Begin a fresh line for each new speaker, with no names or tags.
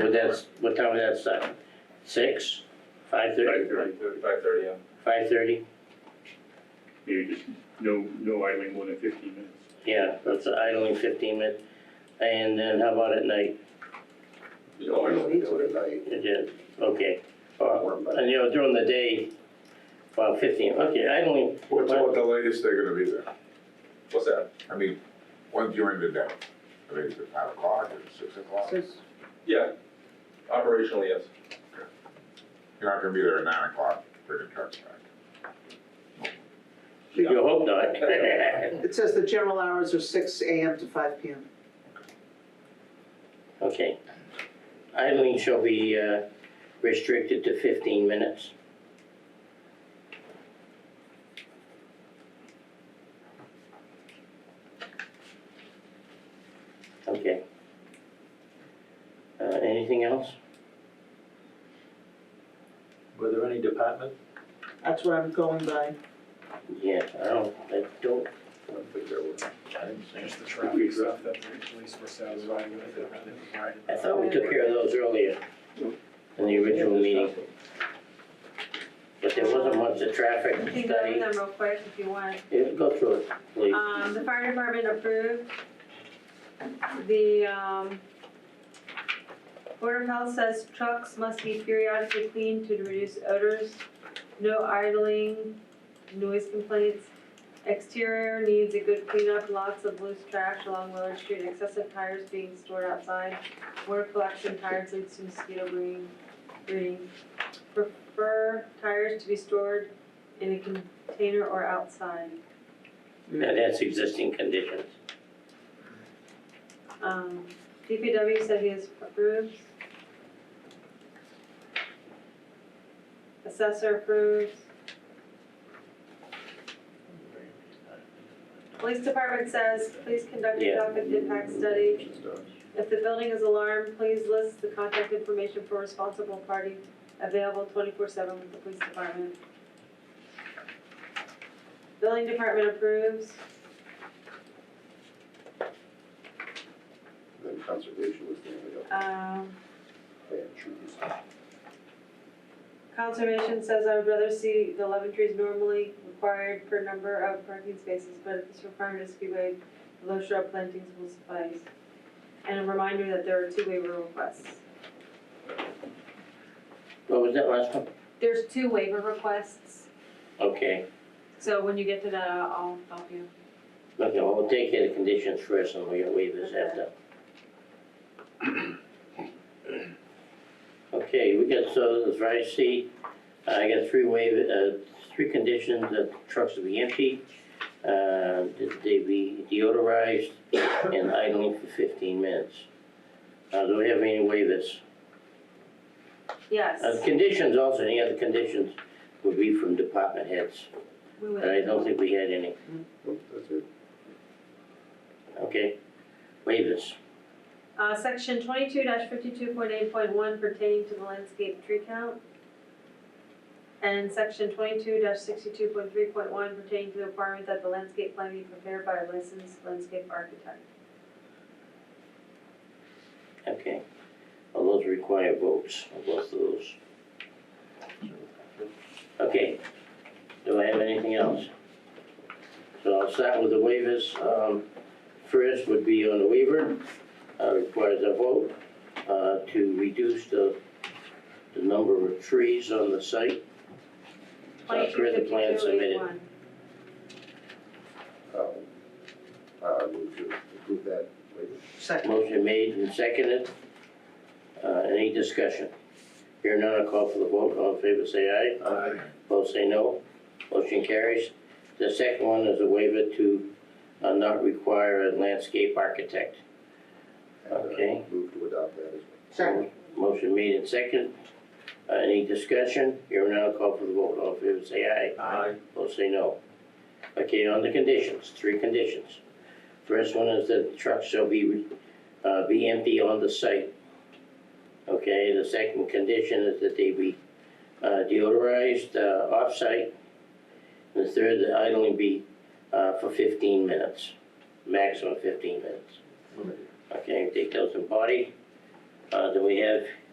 But that's, what time was that start? Six? Five thirty?
Five thirty, yeah.
Five thirty?
Maybe just no, no idling more than fifteen minutes.
Yeah, that's idling fifteen minutes. And then how about at night?
You know, I don't do it at night.
It did, okay. Or-
Warm, but-
And you know, during the day, well, fifteen, okay, idling,
What's, what the latest they're gonna be there?
What's that?
I mean, when's your end of day? I mean, is it five o'clock, is it six o'clock?
Yeah, operationally, yes.
You're not gonna be there at nine o'clock, bringing trucks back.
you hope not.
It says the general hours are six AM to five PM.
Okay. Idling shall be uh, restricted to fifteen minutes. Okay. Uh, anything else?
Were there any department?
That's what I'm going by.
Yeah, I don't, I don't,
I don't think there were.
There's the traffic stuff that the police were satisfied with, that they provided.
I thought we took care of those earlier in the original meeting, but there wasn't much of traffic
I can go over
study.
them real quick if you want.
Yeah, Go through it, please.
Um, the fire department approved the, um, Board of Health says trucks must be periodically cleaned to reduce odors, no idling, noise complaints. Exterior needs a good cleanup, lots of loose trash along Willard Street, excessive tires being stored outside. Water collection tires leads to mosquito breeding, breeding. Prefer tires to be stored in a container or outside.
Now, that's existing conditions.
Um, DPW said he has approved. Assessor approves. Police department says, please conduct a
Yeah.
traffic impact study.
Just, uh,
If the building is alarmed, please list the contact information for responsible party available twenty-four seven with the police department. Building department approves.
Then conservation was the only other
Um,
plan, trees.
Conservation says I would rather see the eleven trees normally required per number of parking spaces, but if this requirement is to be waived, the low shrub plantings will suffice. And a reminder that there are two waiver requests.
What was that last one?
There's two waiver requests,
Okay,
so when you get to that, I'll I'll help you.
okay, well, we'll take care of the conditions first and we'll waive this after. Okay, we got, so as I see, I got three waive, uh, three conditions, that trucks will be empty, uh, that they be deodorized and idling for fifteen minutes. Uh, do we have any waivers?
Yes,
Uh, the conditions also, any other conditions would be from department heads,
we
but
would.
I don't think we had any,
Nope, That's it.
okay? Waivers.
Uh, section twenty-two fifty-two point eight point one pertaining to the landscape tree count. And section twenty-two sixty-two point three point one pertaining to the requirement that the landscape plan be prepared by a licensed landscape architect.
Okay, well, those require votes, on both of those. Okay, do I have anything else? So I'll start with the waivers, um, first would be on the waiver, uh, requires a vote, uh, to reduce the, the number of trees on the site. I've
Twenty-two
read the
fifty-two
plan
eight
submitted.
one.
Um, uh, would you approve that later?
Second.
Motion made and seconded, uh, any discussion? Here none, i call for the vote, all in favor say aye. Opposed, say no. Motion carries. The second one is a waiver to uh, not require a landscape architect.
And, uh,
Okay.
Move to adopt that as
Second.
Motion made and second. Uh, Any discussion? Here now, call for the vote. All in favor, say aye.
Aye.
Opposed, say no. Okay, on the conditions, three conditions. First one is that trucks shall be, uh, be empty on the site. Okay, the second condition is that they be uh, deodorized uh, off-site. And the third, the idling be uh, for fifteen minutes, maximum fifteen minutes.
well.
Okay, take those in body. Uh, do we have